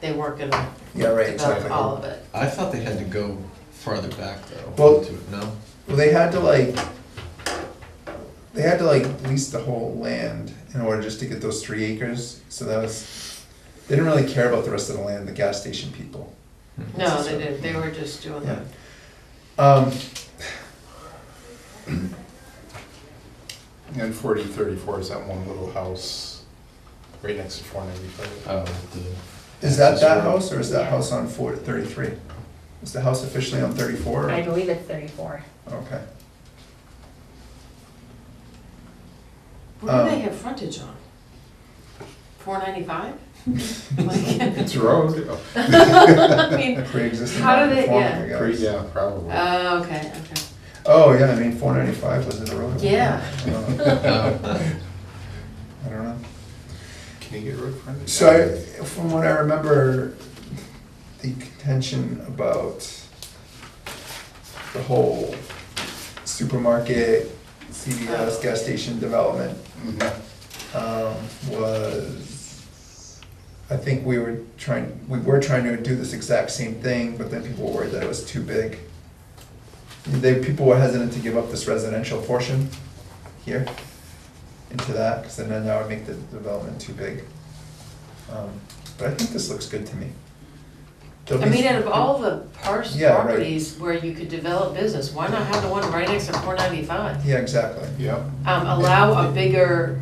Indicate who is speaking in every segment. Speaker 1: they weren't gonna
Speaker 2: Yeah, right,
Speaker 1: develop
Speaker 2: exactly.
Speaker 1: all of it.
Speaker 3: I thought they had to go farther back though.
Speaker 2: Well-
Speaker 3: to- No?
Speaker 2: Well, they had to like, they had to like lease the whole land in order just to get those three acres. So that was, they didn't really care about the rest of the land, the gas station people.
Speaker 1: No, they didn't, they were just doing
Speaker 2: Yeah.
Speaker 1: that.
Speaker 2: Um,
Speaker 4: And forty thirty-four is that one little house right next to four ninety-five.
Speaker 3: Oh, the,
Speaker 2: is that that
Speaker 3: Yeah.
Speaker 2: house or is that house on four, thirty-three? Is the house officially on thirty-four?
Speaker 5: I believe it's thirty-four.
Speaker 2: Okay.
Speaker 1: What do they
Speaker 2: Um,
Speaker 1: have frontage on? Four ninety-five? Like,
Speaker 4: It's a road, oh,
Speaker 1: I mean,
Speaker 2: Pre-existing.
Speaker 1: How did it-
Speaker 2: non-conforming,
Speaker 1: yeah.
Speaker 2: I guess.
Speaker 4: pretty- yeah, probably.
Speaker 1: oh, okay, okay.
Speaker 2: Oh, yeah, I mean, four ninety-five was it a road?
Speaker 1: Yeah.
Speaker 2: Uh,
Speaker 3: oh,
Speaker 2: I don't know.
Speaker 4: Can you get road frontage?
Speaker 2: So I, from what I remember, the contention about the whole supermarket, CVS, gas station development,
Speaker 4: Mhm.
Speaker 2: um, was, I think we were trying, we were trying to do this exact same thing, but then people were worried that it was too big. They, people were hesitant to give up this residential portion here into that, because then that would make the development too big. Um, But I think this looks good to me. There'll
Speaker 1: I
Speaker 2: be-
Speaker 1: mean, out of all the parcel
Speaker 2: Yeah, right.
Speaker 1: properties where you could develop business, why not have the one right next to four ninety-five?
Speaker 2: Yeah, exactly.
Speaker 4: Yeah.
Speaker 1: Um, allow a bigger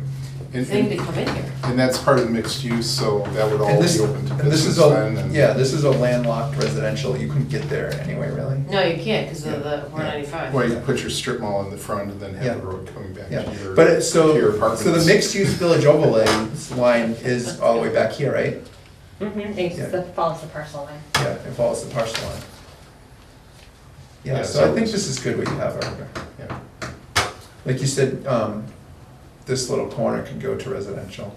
Speaker 4: And-
Speaker 1: thing to come in here.
Speaker 4: And that's part of the mixed use, so that would all
Speaker 2: And this,
Speaker 4: be open to
Speaker 2: and this is
Speaker 4: business then.
Speaker 2: a,
Speaker 4: and-
Speaker 2: yeah, this is a landlocked residential, you couldn't get there anyway, really.
Speaker 1: No, you can't because of
Speaker 2: Yeah,
Speaker 1: the four ninety-five.
Speaker 4: Well, you put your strip mall in the front and then have the
Speaker 2: Yeah.
Speaker 4: road coming back
Speaker 2: Yeah,
Speaker 4: to your.
Speaker 2: but it-
Speaker 4: to your
Speaker 2: so,
Speaker 4: apartments.
Speaker 2: so the mixed-use village overlay line is all the way back here, right?
Speaker 5: Mm-hmm,
Speaker 2: Yeah.
Speaker 5: it follows the parcel line.
Speaker 2: Yeah, it follows the parcel line. Yeah,
Speaker 4: Yeah,
Speaker 2: so I
Speaker 4: so-
Speaker 2: think this is good what you have over there.
Speaker 4: Yeah.
Speaker 2: Like you said, um, this little corner can go to residential.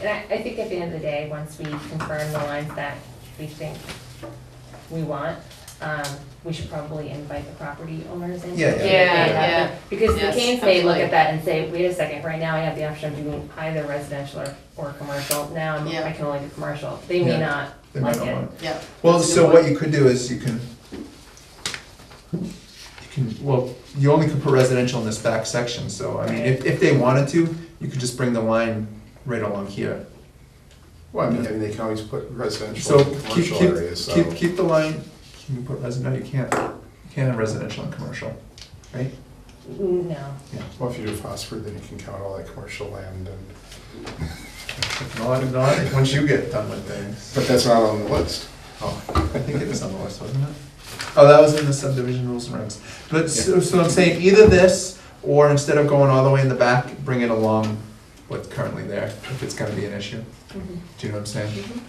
Speaker 5: And I, I think at the end of the day, once we confirm the lines that we think we want, um, we should probably invite the property owners in. to
Speaker 2: Yeah, yeah.
Speaker 5: see if they
Speaker 1: Yeah,
Speaker 5: have
Speaker 1: yeah.
Speaker 5: it. Because they
Speaker 1: Yes,
Speaker 5: can say, look
Speaker 1: absolutely.
Speaker 5: at that and say, wait a second, right now I have the option of doing either residential or, or commercial. Now I'm-
Speaker 1: Yeah.
Speaker 5: I can only do commercial. They may
Speaker 2: Yeah.
Speaker 5: not
Speaker 2: They might
Speaker 5: like
Speaker 2: not
Speaker 5: it.
Speaker 2: want it.
Speaker 1: Yeah.
Speaker 2: Well,
Speaker 1: That's a
Speaker 2: so
Speaker 1: good
Speaker 2: what
Speaker 1: point.
Speaker 2: you could do is you can, you can, well, you only could put residential in this back section, so, I mean, if, if they wanted to, you could just bring the line right along here.
Speaker 4: Well, I mean, I mean, they can always put residential
Speaker 2: So
Speaker 4: and
Speaker 2: keep,
Speaker 4: commercial
Speaker 2: keep,
Speaker 4: areas, so.
Speaker 2: keep, keep the line, can you put resi, no, you can't, you can't have residential and commercial, right?
Speaker 5: Mm, No.
Speaker 4: Well, if you do phosphor, then you can count all that commercial land and,
Speaker 2: Not, not, once you get done with things.
Speaker 4: but that's not on the list.
Speaker 2: I think it was on the list, wasn't it? Oh, that was in the subdivision rules and regs. But, so, so I'm saying either this, or instead of going all the way in the back, bring it along what's currently there, if it's gonna be an issue.
Speaker 1: Mm-hmm.
Speaker 5: Mhm.
Speaker 2: Do you know what I'm saying?
Speaker 5: Do you want me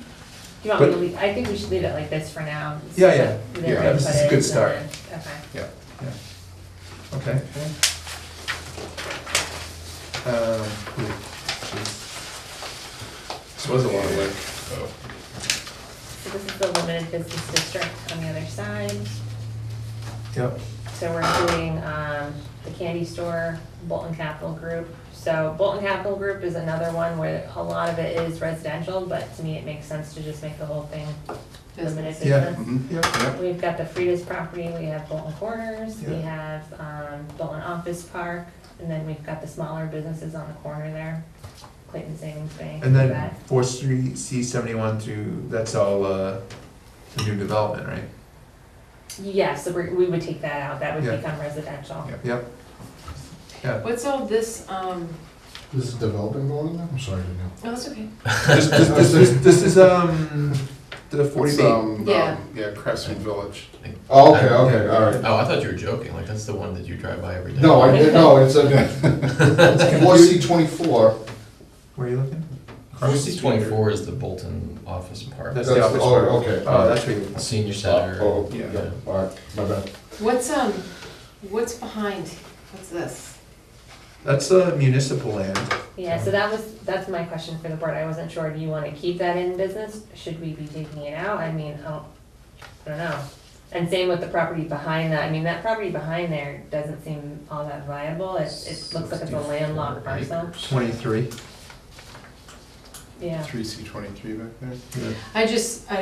Speaker 5: to
Speaker 2: But-
Speaker 5: leave, I think we should leave it like this for now.
Speaker 2: Yeah, yeah.
Speaker 5: Then
Speaker 4: Yeah,
Speaker 5: we
Speaker 2: this
Speaker 5: put
Speaker 2: is a
Speaker 5: it
Speaker 2: good
Speaker 5: in
Speaker 2: start.
Speaker 5: the- Okay.
Speaker 4: Yeah.
Speaker 2: Yeah. Okay. Um, ooh, jeez. This was a lot of work.
Speaker 5: So this is the limited business district on the other side.
Speaker 2: Yep.
Speaker 5: So we're including um, the candy store, Bolton Capital Group. So Bolton Capital Group is another one where a lot of it is residential, but to me, it makes sense to just make the whole thing limited
Speaker 1: Business.
Speaker 2: Yeah.
Speaker 5: business.
Speaker 4: Mhm.
Speaker 2: Yep.
Speaker 4: Yep.
Speaker 5: We've got the Frida's property, we have Bolton Corners, we
Speaker 2: Yeah.
Speaker 5: have um, Bolton Office Park, and then we've got the smaller businesses on the corner there, Clayton Savings Bank.
Speaker 2: And then
Speaker 5: that.
Speaker 2: Fourth Street, C seventy-one through, that's all, uh, the new development, right?
Speaker 5: Yeah, so we're- we would take that out, that
Speaker 2: Yeah.
Speaker 5: would become residential.
Speaker 4: Yeah.
Speaker 2: Yep. Yeah,
Speaker 1: What's all this, um,
Speaker 6: This is developing going on? I'm sorry, I didn't know.
Speaker 1: no, that's okay.
Speaker 2: this, this, this, this- this is, um, the forty
Speaker 4: It's,
Speaker 2: B.
Speaker 4: um,
Speaker 1: Yeah.
Speaker 4: um, yeah, Crescent Village.
Speaker 6: Oh, okay, okay, all right.
Speaker 3: I thought you were joking. Like, that's the one that you drive by every day.
Speaker 6: No, I didn't, no, it's a, four C twenty-four,
Speaker 2: Where are you looking?
Speaker 3: Cruise 24 is the Bolton office park.
Speaker 2: That's
Speaker 6: that's,
Speaker 2: the office part.
Speaker 6: oh, okay.
Speaker 2: Oh, that's where you,
Speaker 3: Senior
Speaker 6: Oh,
Speaker 3: center.
Speaker 6: oh,
Speaker 4: Yeah.
Speaker 6: yeah, all right, my bad.
Speaker 1: What's, um, what's behind, what's this?
Speaker 2: that's a municipal land.
Speaker 5: Yeah, so that was, that's my question for the board, I wasn't sure, do you wanna keep that in business, should we be taking it out, I mean, I don't, I don't know. And same with the property behind that, I mean, that property behind there doesn't seem all that viable, it, it looks like it's a
Speaker 3: 64
Speaker 5: landlocked parcel.
Speaker 3: acres.
Speaker 2: Twenty-three.
Speaker 5: yeah.
Speaker 4: three C twenty-three back there.
Speaker 1: I just, I don't